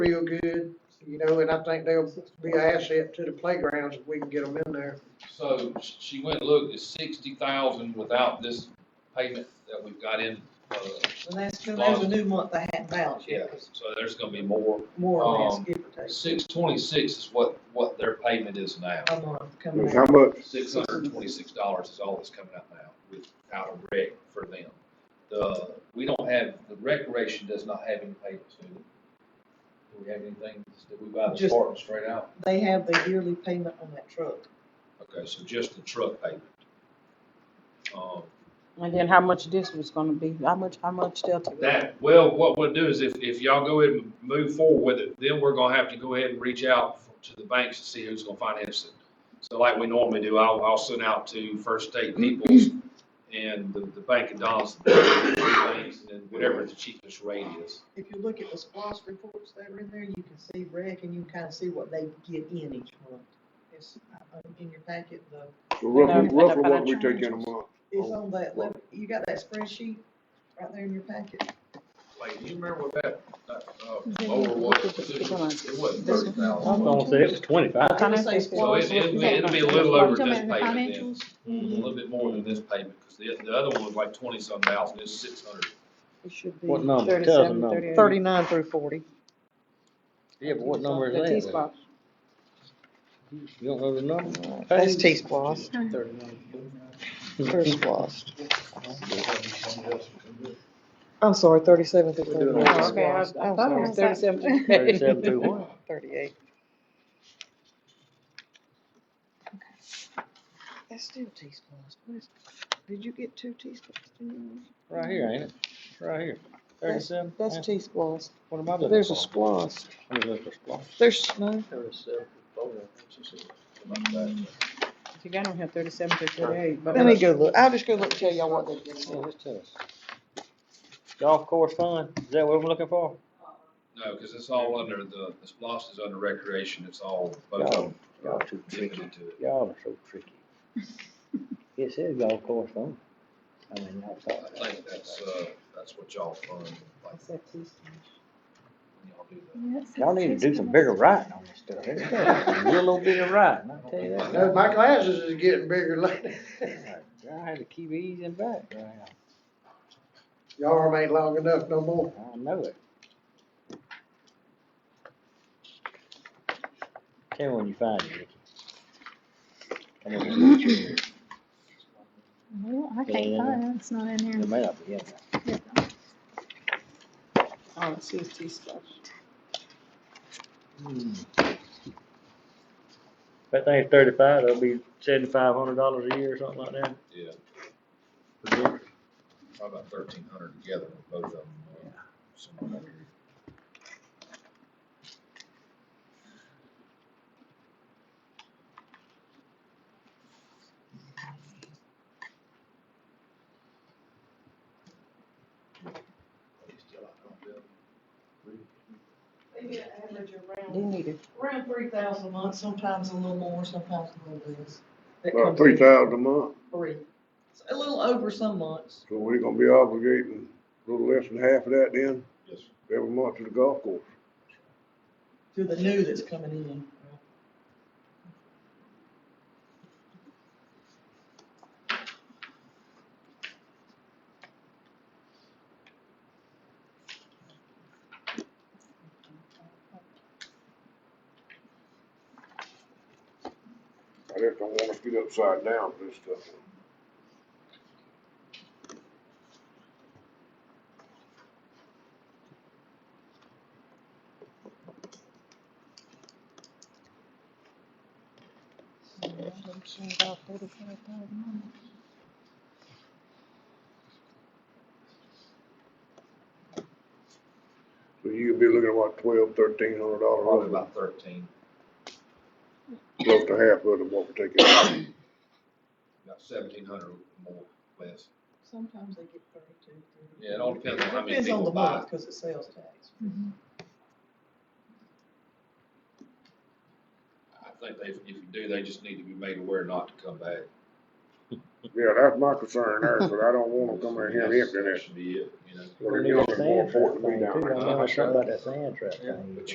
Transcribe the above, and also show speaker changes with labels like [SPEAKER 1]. [SPEAKER 1] real good, you know, and I think they'll be an asset to the playgrounds if we can get them in there.
[SPEAKER 2] So sh- she went and looked, it's sixty thousand without this payment that we've got in, uh,
[SPEAKER 3] And that's, and there's a new month they hadn't balanced
[SPEAKER 2] yeah,
[SPEAKER 3] yet,
[SPEAKER 2] so there's gonna be more.
[SPEAKER 3] more or less,
[SPEAKER 2] Um,
[SPEAKER 3] give or take,
[SPEAKER 2] Six twenty-six is what, what their payment is now.
[SPEAKER 3] a month coming
[SPEAKER 4] It's
[SPEAKER 3] out.
[SPEAKER 4] How much?
[SPEAKER 2] Six hundred and twenty-six dollars is all that's coming out now without a rec for them. The, we don't have, the recreation does not have any payments, do we? Do we have anything, did we buy the
[SPEAKER 3] Just-
[SPEAKER 2] apartment straight out?
[SPEAKER 3] They have the yearly payment on that truck.
[SPEAKER 2] Okay, so just the truck payment. Um,
[SPEAKER 5] And then how much this was gonna be, how much, how much Delta?
[SPEAKER 2] That, well, what we'll do is if, if y'all go ahead and move forward with it, then we're gonna have to go ahead and reach out to the banks to see who's gonna finance it. So like we normally do, I'll, I'll send out to First State Peoples and the, the Bank of Donaldson, the banks, and then whatever the cheapest rate is.
[SPEAKER 3] If you look at the SPOS reports that are in there, you can see rec and you can kind of see what they get in each month. It's, uh, in your packet, the,
[SPEAKER 4] So roughly,
[SPEAKER 5] No,
[SPEAKER 4] roughly what we
[SPEAKER 5] financial
[SPEAKER 4] take in a month?
[SPEAKER 3] it's on that, le- you got that spreadsheet right there in your packet.
[SPEAKER 2] Like, you remember what that, that, uh, lower was, it was- it wasn't thirty
[SPEAKER 6] I was
[SPEAKER 2] thousand.
[SPEAKER 6] gonna say it was twenty-five.
[SPEAKER 3] I would say
[SPEAKER 2] So
[SPEAKER 3] SPOS.
[SPEAKER 2] it, it'd be, it'd be a little over this payment then. a little bit more than this payment, because the, the other one was like twenty-some thousand, it's six hundred.
[SPEAKER 5] It should be
[SPEAKER 6] What number? Tell us the
[SPEAKER 5] thirty-seven,
[SPEAKER 6] number.
[SPEAKER 5] thirty-eight.
[SPEAKER 3] Thirty-nine through forty.
[SPEAKER 6] Yeah, but what number
[SPEAKER 5] The
[SPEAKER 6] is that?
[SPEAKER 5] T-Spot.
[SPEAKER 6] You don't know the number?
[SPEAKER 3] That's T-SPOS,
[SPEAKER 6] Thirty-nine.
[SPEAKER 3] SPOS. I'm sorry, thirty-seven through
[SPEAKER 6] We're doing all
[SPEAKER 5] Oh, Okay, I, I thought it was thirty-seven.
[SPEAKER 6] Thirty-seven through one.
[SPEAKER 3] Thirty-eight. That's still T-SPOS, what is, did you get two T-SPOS?
[SPEAKER 6] Right here, ain't it? Right here. Thirty-seven.
[SPEAKER 3] That's
[SPEAKER 6] Yeah.
[SPEAKER 3] T-SPOS,
[SPEAKER 6] What am I looking for?
[SPEAKER 3] there's a SPOS,
[SPEAKER 6] I'm looking for squash.
[SPEAKER 3] there's, no,
[SPEAKER 5] You got on here thirty-seven to thirty-eight, but.
[SPEAKER 3] let me go look, I'll just go look and tell y'all what they get.
[SPEAKER 6] Yeah, just tell us. Golf course fund, is that what I'm looking for?
[SPEAKER 2] No, because it's all under the, the splosh is under recreation, it's all, both of them
[SPEAKER 6] Y'all too
[SPEAKER 2] dipping
[SPEAKER 6] tricky.
[SPEAKER 2] into it.
[SPEAKER 6] Y'all are so tricky. It says golf course fund. I mean, I
[SPEAKER 2] I
[SPEAKER 6] thought.
[SPEAKER 2] think that's, uh, that's what y'all fund, like, when y'all do that.
[SPEAKER 6] Y'all need to do some bigger writing on this stuff. There's gotta be some Real little bit of writing, I tell you that.
[SPEAKER 1] No, my glasses is getting bigger lately.
[SPEAKER 6] I had to keep easing back right now.
[SPEAKER 1] Y'all arm ain't long enough no more.
[SPEAKER 6] I know it. Tell me when you find it, Ricky. Come on, it
[SPEAKER 7] Well, I
[SPEAKER 6] Is it in
[SPEAKER 7] can't
[SPEAKER 6] there?
[SPEAKER 7] find it, it's not in here.
[SPEAKER 6] may not be in there.
[SPEAKER 5] Oh, it says T-Spot.
[SPEAKER 6] Hmm. That thing's thirty-five, that'll be seventy-five hundred dollars a year or something like that.
[SPEAKER 2] Yeah, probably about thirteen hundred together, both of them. uh, somewhere around here.
[SPEAKER 5] They need it.
[SPEAKER 3] Around three thousand a month, sometimes a little more, sometimes a little less. That
[SPEAKER 4] About
[SPEAKER 3] comes
[SPEAKER 4] three
[SPEAKER 3] in
[SPEAKER 4] thousand a month,
[SPEAKER 3] Three. It's A little over some months.
[SPEAKER 4] so we're gonna be obligating a little less than half of that then,
[SPEAKER 2] Yes, sir.
[SPEAKER 4] every month to the golf course.
[SPEAKER 3] To the new that's coming in.
[SPEAKER 4] I just don't wanna get upside down with this stuff. So you could be looking at what, twelve, thirteen hundred
[SPEAKER 2] probably
[SPEAKER 4] dollars,
[SPEAKER 2] about thirteen,
[SPEAKER 4] close to half of it, what we're taking out.
[SPEAKER 2] about seventeen hundred more, less.
[SPEAKER 3] Sometimes they get thirty-two. 33.
[SPEAKER 2] Yeah, it all depends on how many
[SPEAKER 3] Depends on
[SPEAKER 2] people
[SPEAKER 3] the
[SPEAKER 2] buy
[SPEAKER 3] month,
[SPEAKER 2] it.
[SPEAKER 3] Cause it's sales tax.
[SPEAKER 2] I think they, if you do, they just need to be made aware not to come back.
[SPEAKER 4] Yeah, that's my concern there, but I don't wanna come in here empty
[SPEAKER 2] That
[SPEAKER 4] this.
[SPEAKER 2] should be it, you know.
[SPEAKER 4] Well, they're giving us more for it to be down there.
[SPEAKER 6] I know something about that sand trap thing.